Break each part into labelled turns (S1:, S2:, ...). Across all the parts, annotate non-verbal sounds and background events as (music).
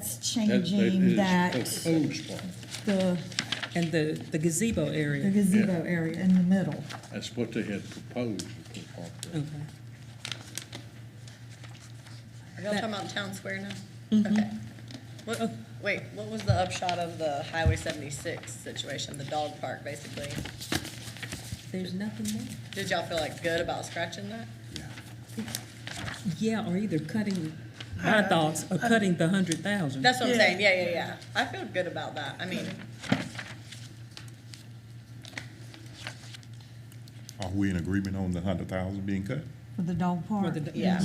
S1: It's
S2: That- that
S1: changing
S2: is
S1: that,
S2: Proposed,
S1: the
S3: And the, the gazebo
S1: the
S3: area.
S1: gazebo area in the middle.
S2: that's what they had proposed to put park there.
S3: Okay.
S4: Are y'all talking about Town Square now? Okay. What, oh, wait, what was the upshot of the Highway seventy-six situation, the dog park, basically?
S3: There's nothing there.
S4: Did y'all feel like good about scratching that?
S3: Yeah, or either cutting, my thoughts, or cutting the hundred thousand.
S4: That's what I'm saying, yeah, yeah, yeah. I feel good about that, I mean,
S5: Are we in agreement on the hundred thousand being cut?
S1: For the dog
S3: For
S1: park.
S3: the-
S4: Yeah.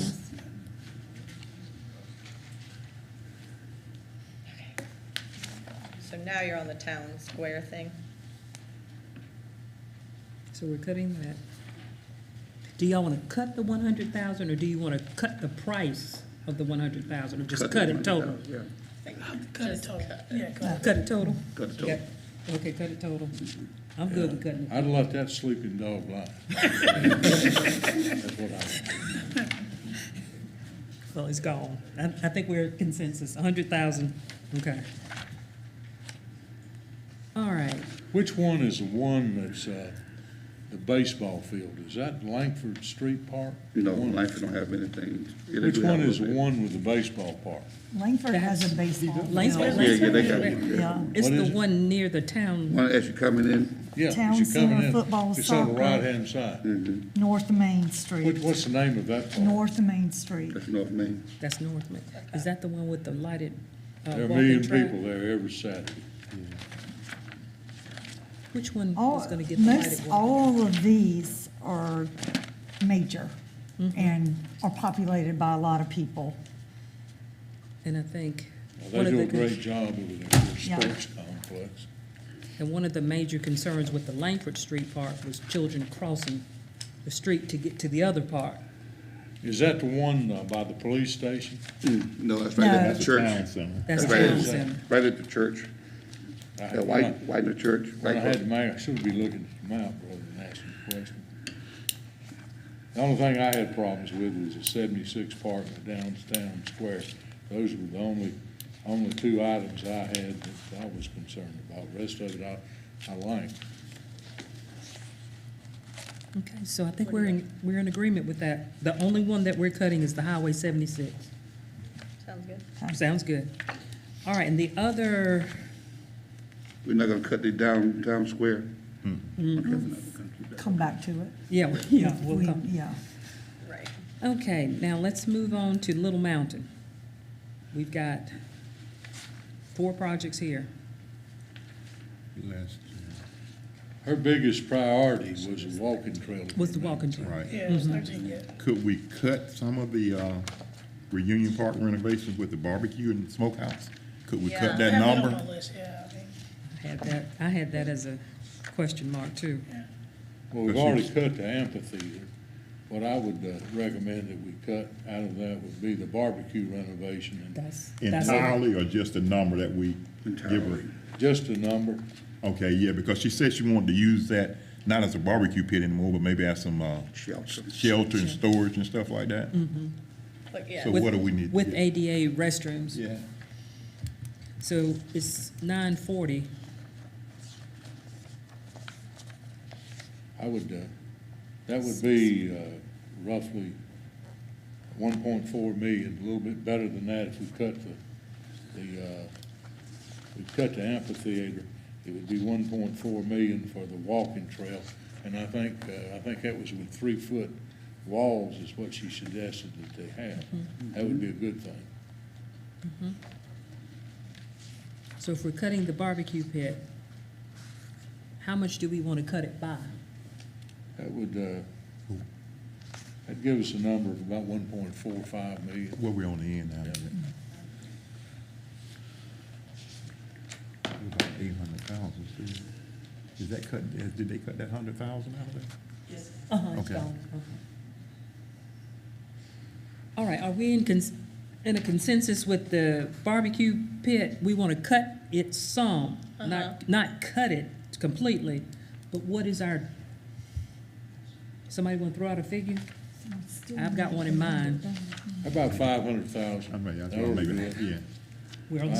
S4: so now you're on the Town Square thing.
S3: So we're cutting that. Do y'all wanna cut the one hundred thousand, or do you wanna cut the price of the one hundred thousand, or just cut it total?
S6: Yeah,
S4: Cut it total.
S3: Cut it total?
S6: cut it
S3: Yeah.
S6: total.
S3: Okay, cut it total. I'm good with cutting it.
S2: I'd let that sleeping dog
S5: (laughs)
S2: lie. That's what I,
S3: Well, it's gone. I, I think we're consensus, a hundred thousand, okay. All right,
S2: which one is the one that's, uh, the baseball field? Is that Langford Street Park?
S6: No,
S2: One-
S6: Langford don't have anything. Yeah, they
S2: Which
S6: do have
S2: one
S6: a
S2: is the
S6: little
S2: one with the baseball park?
S1: Langford has a baseball. field.
S3: Langsford-
S6: bit. Yeah, yeah, they got one. yeah.
S1: Yeah,
S3: it's
S2: What
S3: the
S2: is it?
S3: one near the town,
S6: One as you coming in,
S2: Yeah, as
S1: Town
S2: you're
S1: Center
S2: coming in,
S1: Football
S2: It's on the
S1: Soccer.
S2: right-hand
S6: Mm.
S2: side.
S1: North Main
S2: What,
S1: Street,
S2: what's the name of that park?
S1: North Main Street.
S6: that's North Main.
S3: that's North Main. Is that the one with the lighted, uh,
S2: There are a
S3: walking
S2: million
S3: track?
S2: people there every Saturday.
S3: Which one
S1: All,
S3: is gonna get the
S1: most,
S3: lighted one?
S1: all of these are major
S3: Mm-hmm.
S1: and are populated by a lot of people.
S3: And I think.
S2: Well,
S3: one
S2: They do
S3: of the
S2: a
S3: con-
S2: great job over there, for a
S1: Yeah.
S2: sports complex.
S3: And one of the major concerns with the Langford Street part was children crossing the street to get to the other part.
S2: Is that the one uh, by the police station?
S6: Mm, No, that's right at
S1: No.
S6: the church.
S5: Town center.
S3: That's
S6: That's right.
S3: town center.
S6: Right at the church,
S2: I-
S6: that white, white in the church.
S2: When I
S6: right
S2: had the mayor, I should be looking at the map rather than asking the question. The only thing I had problems with was the seventy-six park and the downtown square. Those were the only, only two items I had that I was concerned about. The Rest of it, I, I liked.
S3: Okay, so I think we're in, we're in agreement with that. The only one that we're cutting is the Highway seventy-six.
S4: Sounds good.
S3: Sounds good. All right, and the other,
S6: We're not gonna cut the downtown square. Okay, we're not gonna do that.
S1: Come back to it.
S3: yeah, (laughs) we- yeah, we'll
S1: We,
S3: come.
S1: yeah.
S4: Right.
S3: Okay, now let's move on to Little Mountain. We've got four projects here.
S5: Last,
S2: Her biggest priority was the walking trail.
S3: What's the walking
S5: yeah,
S3: trail?
S5: right.
S7: Yeah, it was thirteen, yeah.
S5: Could we cut some of the, uh, reunion park renovations with the barbecue and smokehouse? Could we
S4: Yeah.
S5: cut
S7: I
S5: that
S7: have on my
S5: number?
S7: list, yeah, I think.
S3: I had that, I had that as a question mark too.
S2: Well, we've already cut the amphitheater. What I would uh, recommend that we cut out of that would be the barbecue renovation and
S3: That's, that's,
S5: Entirely or just a number that we give her?
S6: Entirely.
S2: just a number.
S5: Okay, yeah, because she said she wanted to use that, not as a barbecue pit anymore, but maybe as some, uh,
S6: Shelter.
S5: shelter and storage and stuff like that.
S4: But yeah,
S5: So what do we need? to
S3: Mm-hmm. with
S5: do?
S3: ADA restrooms.
S5: Yeah.
S3: So it's nine forty.
S2: I would, uh, that would be uh, roughly one point four million, a little bit better than that if we cut the, the, uh, we cut the amphitheater. It would be one point four million for the walking trail. And I think, uh, I think that was with three-foot walls is what she suggested that they have. That would be a good thing.
S3: So if we're cutting the barbecue pit, how much do we want to cut it by?
S2: That would, uh, that'd give us a number of about one point four five million.
S5: Where we on the end now? About eight hundred thousand, Is that cut, is- did they cut that hundred thousand out of there?
S3: Uh-huh, it's
S5: Okay.
S3: gone. Okay. All right, are we in cons, in a consensus with the barbecue pit? We want to cut it some, not, not cut it completely, but what is our, somebody want to throw out a figure? I've got one in mind.
S2: About five hundred thousand.
S5: I mean, I think maybe, Oh, yeah.
S3: We're on the